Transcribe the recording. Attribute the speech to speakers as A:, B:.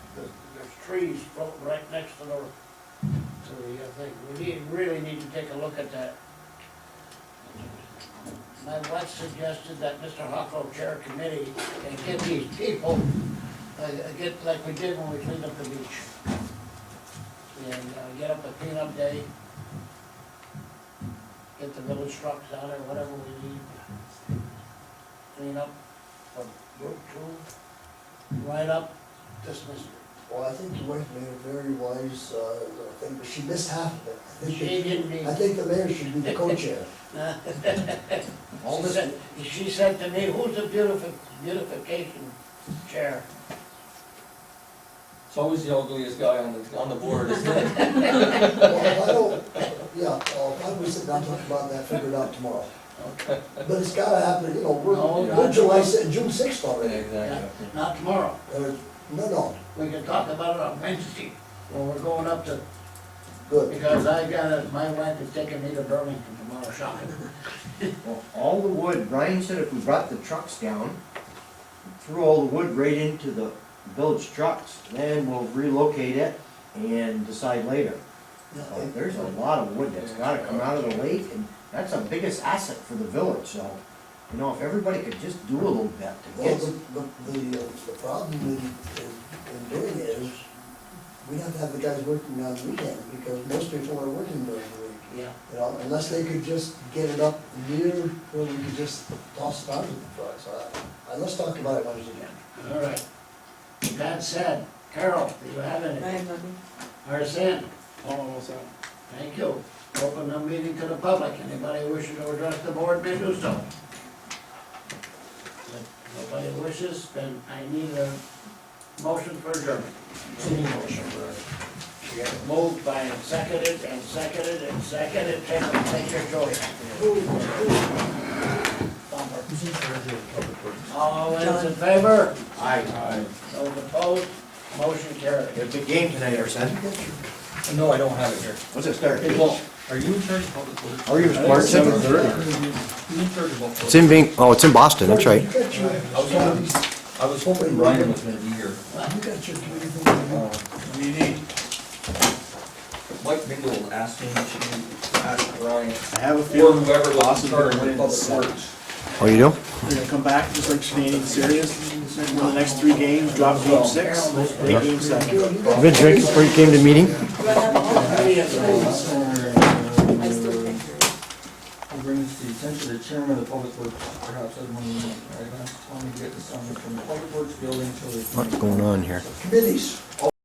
A: there's, there's trees floating right next to the, to the uh, thing. We need, really need to take a look at that. My wife suggested that Mr. Huckrow chair a committee and get these people, uh, get like we did when we cleaned up the beach. And uh, get up a cleanup day. Get the village trucks out or whatever we need. Clean up from Route Two, right up this mystery.
B: Well, I think the wife made a very wise, uh, thing, but she missed half of it. I think
A: She
B: that-
A: didn't mean-
B: I think the mayor should be the co-chair. All
A: She
B: this,
A: said, she said to me, who's the beautifi- beautification chair?
C: It's always the ugliest guy on the, on the board, isn't it?
B: well, if I don't, yeah, I'll probably sit down and talk about that, figure it out tomorrow. But it's gotta happen, you know,
A: No,
B: we're,
A: no.
B: we're July, se- June sixth already.
C: Exactly.
A: Not tomorrow,
B: Uh, No, no,
A: we can talk about it on Wednesday, when we're going up to,
B: good.
A: because I gotta, my wife is taking me to Burlington tomorrow shopping.
D: Well, all the wood, Brian said if we brought the trucks down, threw all the wood right into the village trucks, then we'll relocate it and decide later. So
B: Yeah,
D: There's a lot of wood that's gotta come out of the lake, and that's our biggest asset for the village, so, you know, if everybody could just do a little bit to
B: Well,
D: get,
B: the, the, the, uh, the problem in, in in doing it is, we have to have the guys working on the weekend, because most people are working during the week.
A: Yeah.
B: You know, unless they could just get it up near where we could just toss it out of the truck, so I, I- let's talk about it Wednesday again.
A: All right. With That said, Carol, do you have
E: I
A: any?
E: have nothing.
A: Arson,
F: Oh, what's that?
A: thank you. Open the meeting to the public, anybody wishing to address the board may do so. If Nobody wishes, then I need a motion for adjournment. Moved by and seconded and seconded and seconded, take, take your choice. Bumper. All those in favor?
D: I,
A: Those opposed? Motion carried.
D: it's a game tonight, Arson.
C: No, I don't have it here.
D: What's it start?
C: Hey, Walt, are you in charge of public works?
D: Are you March seventh?
C: You in charge of public
G: It's
C: works?
G: in Ving, oh, it's in Boston, that's right.
B: You got your,
C: I was hoping, I was hoping Ryan was gonna be here.
B: you got your committee thing.
C: Um, Mike Mingle asked me to ask Ryan,
F: I have a
C: or
F: feeling
C: whoever was in
F: Boston
C: charge
F: are
C: of
F: winning
C: public
F: the series.
C: works.
G: Oh, you do?
F: They're gonna come back just like Canadian Series, win the next three games, drop game six, take game seven.
G: I've been drinking before you came to meeting.
E: Do I have all that? I still think.
C: I'll bring this to the attention of the chairman of the public works, perhaps I don't know, I've asked Tommy to get this on from the public works building to the.
G: What's going on here?
B: Committees.